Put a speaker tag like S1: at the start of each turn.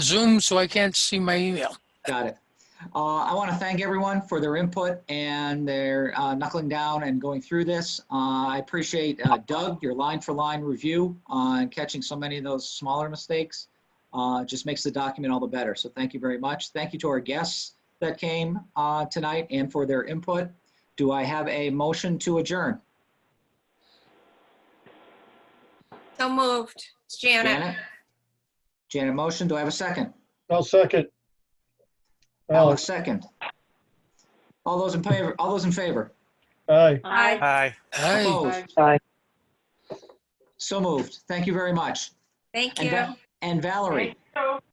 S1: Zoom, so I can't see my email.
S2: Got it. Uh, I want to thank everyone for their input and their uh, knuckling down and going through this. Uh, I appreciate uh, Doug, your line for line review uh, and catching so many of those smaller mistakes. Uh, Just makes the document all the better. So thank you very much. Thank you to our guests that came uh, tonight and for their input. Do I have a motion to adjourn?
S3: So moved. It's Janet.
S2: Janet? Janet, motion. Do I have a second?
S4: I'll second.
S2: Alex,
S4: Alex,
S2: second. All those in favor, all those in favor?
S4: aye.
S3: Aye.
S5: Hi.
S1: Hi,
S2: Opposed?
S6: Aye.
S2: So moved. Thank you very much.
S3: Thank
S2: And
S3: you.
S2: Val- And Valerie?